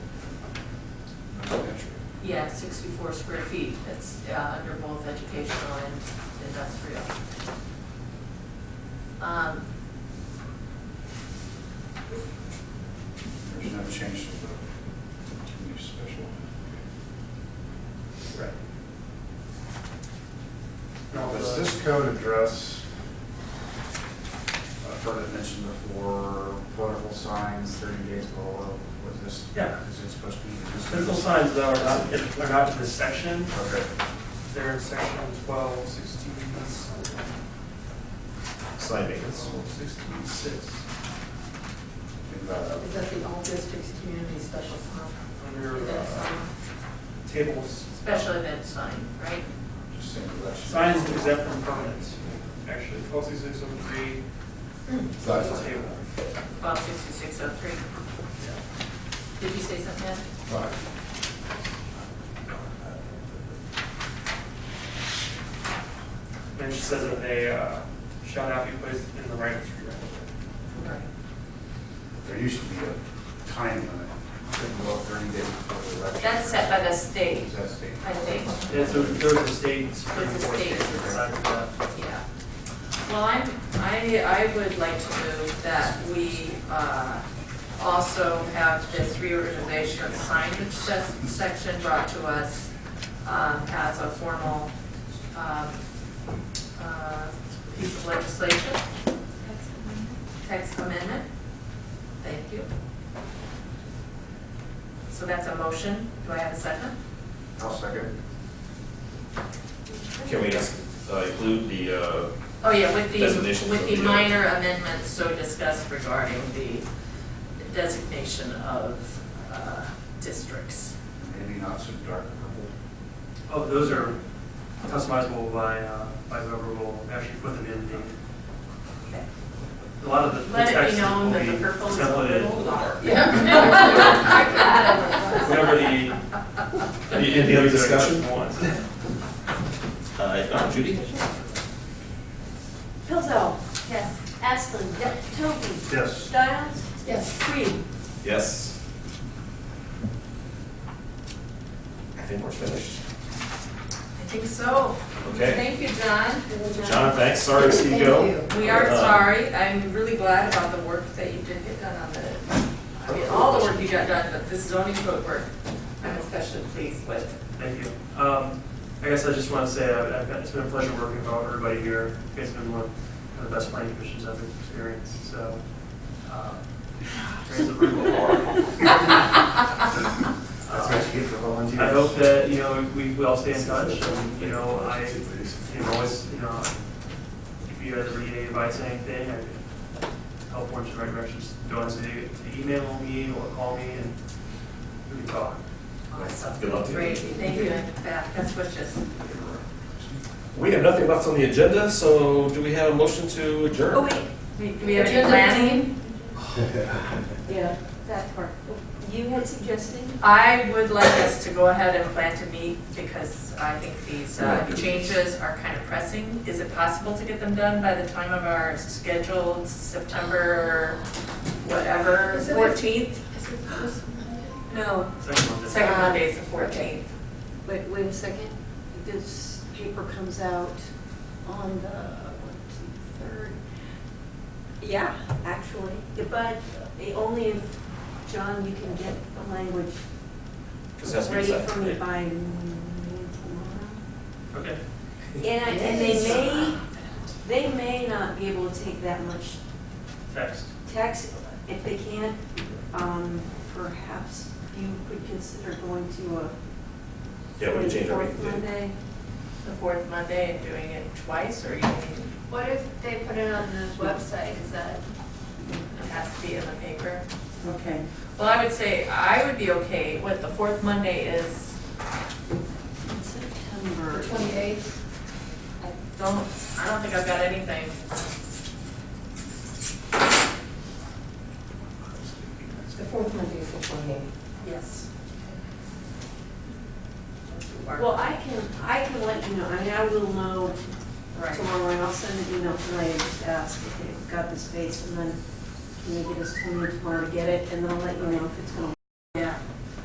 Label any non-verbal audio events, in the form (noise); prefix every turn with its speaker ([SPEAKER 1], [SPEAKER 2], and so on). [SPEAKER 1] Yeah, sixty-four square feet, it's uh, under both educational and industrial. Um,
[SPEAKER 2] There's no change to the new special.
[SPEAKER 3] Right.
[SPEAKER 2] Now, does this code address, I've heard it mentioned before, political signs thirty days below, was this?
[SPEAKER 3] Yeah.
[SPEAKER 2] Is it supposed to be?
[SPEAKER 3] Political signs though are not, are not in this section,
[SPEAKER 2] Okay.
[SPEAKER 3] they're in section twelve sixteen,
[SPEAKER 4] Sign maintenance.
[SPEAKER 3] twelve sixteen six,
[SPEAKER 2] Oh, Think about that.
[SPEAKER 1] Is that the all districts community special sign?
[SPEAKER 3] under
[SPEAKER 1] Event
[SPEAKER 3] uh,
[SPEAKER 1] sign?
[SPEAKER 3] tables.
[SPEAKER 1] Special event sign, right?
[SPEAKER 2] Just think of that.
[SPEAKER 3] Sign is exempt from permanence, actually, twelve sixteen six oh three,
[SPEAKER 1] Hmm.
[SPEAKER 4] Sign.
[SPEAKER 3] that's a table.
[SPEAKER 1] Twelve sixty-six oh three. Did you say something else?
[SPEAKER 4] Right.
[SPEAKER 3] Then it says that they uh, shall not be placed in the right of street.
[SPEAKER 1] Right.
[SPEAKER 2] There used to be a time limit, couldn't go up thirty days before the election.
[SPEAKER 1] That's set by the state,
[SPEAKER 2] Is that state?
[SPEAKER 1] I think,
[SPEAKER 3] Yeah, so there's a state Supreme
[SPEAKER 1] There's a
[SPEAKER 3] Court
[SPEAKER 1] state.
[SPEAKER 3] case that decided that.
[SPEAKER 1] yeah. Well, I'm, I, I would like to move that we, uh, also have this reorganization of signage se- section brought to us, um, as a formal, um, uh, piece of legislation. Text amendment, thank you. So that's a motion, do I have a second?
[SPEAKER 2] I'll second.
[SPEAKER 4] Can we ask, uh, include the, uh,
[SPEAKER 1] Oh, yeah, with the,
[SPEAKER 4] Designations
[SPEAKER 1] with
[SPEAKER 4] of
[SPEAKER 1] the
[SPEAKER 4] the- uh,
[SPEAKER 1] minor amendments so discussed regarding the designation of uh, districts.
[SPEAKER 2] Maybe not so dark purple.
[SPEAKER 3] Oh, those are customizable by, uh, by whoever will actually put them in the,
[SPEAKER 1] Okay.
[SPEAKER 3] a lot of the the
[SPEAKER 1] Let it
[SPEAKER 3] text
[SPEAKER 1] be known
[SPEAKER 3] will
[SPEAKER 1] that
[SPEAKER 3] be
[SPEAKER 1] the purple is a little
[SPEAKER 3] templated.
[SPEAKER 4] (laughs)
[SPEAKER 1] dark.
[SPEAKER 3] Whatever the.
[SPEAKER 4] Any- any other (laughs) discussion?
[SPEAKER 3] Wants.
[SPEAKER 4] uh, if not, Judy?
[SPEAKER 5] Pilzo. Yes. Asplin. Yep. Toby.
[SPEAKER 2] Yes.
[SPEAKER 5] Styles.
[SPEAKER 1] Yes.
[SPEAKER 5] Reed.
[SPEAKER 4] Yes. I think we're finished.
[SPEAKER 1] I think so.
[SPEAKER 4] Okay.
[SPEAKER 1] Thank you, John.
[SPEAKER 4] John, thanks, sorry to see you go.
[SPEAKER 1] We are
[SPEAKER 4] Uh,
[SPEAKER 1] sorry. I'm really glad about the work that you did get done on the, I mean, all the work you got done, but this zoning code work, I'm especially pleased with.
[SPEAKER 3] Thank you. Um, I guess I just want to say, I've, I've been- it's been a pleasure working with all- everybody here. You guys have been one of the best planning commissions I've experienced, so, uh, raise the roof of applause.
[SPEAKER 2] That's what you get for volunteers.
[SPEAKER 3] Uh, I hope that, you know, we, we all stay in touch, and, you know, I, you know, always, you know, if you guys ever need any advice, on anything, I can help point you in the right direction, just don't hesitate to email me or call me, and we can talk.
[SPEAKER 1] Awesome.
[SPEAKER 4] Good luck to you.
[SPEAKER 1] Great, thank you, and Beth, that's wishes.
[SPEAKER 4] We have nothing left on the agenda, so do we have a motion to adjourn?
[SPEAKER 5] Oh, wait.
[SPEAKER 1] Do we have any
[SPEAKER 5] Agenda.
[SPEAKER 1] planning?
[SPEAKER 5] Yeah, that part. You had suggested?
[SPEAKER 1] I would like us to go ahead and plan to meet because I think these uh, changes are kind of pressing. Is it possible to get them done by the time of our scheduled September, whatever,
[SPEAKER 5] Is it-
[SPEAKER 1] 14th?
[SPEAKER 5] No,
[SPEAKER 3] Second Monday.
[SPEAKER 1] Second
[SPEAKER 6] uh,
[SPEAKER 1] Monday is the 14th.
[SPEAKER 5] wait, wait a second. This paper comes out on the, what, third? Yeah, actually, but the only if, John, you can get the language
[SPEAKER 4] Because it has to be
[SPEAKER 5] ready
[SPEAKER 4] exact,
[SPEAKER 5] for me
[SPEAKER 4] yeah.
[SPEAKER 5] by noon tomorrow.
[SPEAKER 3] Okay.
[SPEAKER 5] And, I- and they may, they may not be able to take that much
[SPEAKER 3] Text.
[SPEAKER 5] text. If they can't, um, perhaps you could consider going to a
[SPEAKER 4] Yeah, we can change our
[SPEAKER 5] forty-fourth
[SPEAKER 4] meeting date.
[SPEAKER 5] Monday.
[SPEAKER 1] The fourth Monday and doing it twice or you mean
[SPEAKER 6] What if they put it on the website, is that?
[SPEAKER 1] it has to be in the paper?
[SPEAKER 5] Okay.
[SPEAKER 1] Well, I would say I would be okay with the fourth Monday is,
[SPEAKER 5] In September.
[SPEAKER 6] Twenty-eighth.
[SPEAKER 1] don't, I don't think I've got anything.
[SPEAKER 7] The fourth Monday is the twenty-eighth.
[SPEAKER 1] Yes.
[SPEAKER 5] Well, I can, I can let you know, I mean, I will know
[SPEAKER 1] Right.
[SPEAKER 5] tomorrow, and I'll send an email tonight and just ask if they've got the space, and then can you get us to me tomorrow to get it, and then I'll let you know if it's gonna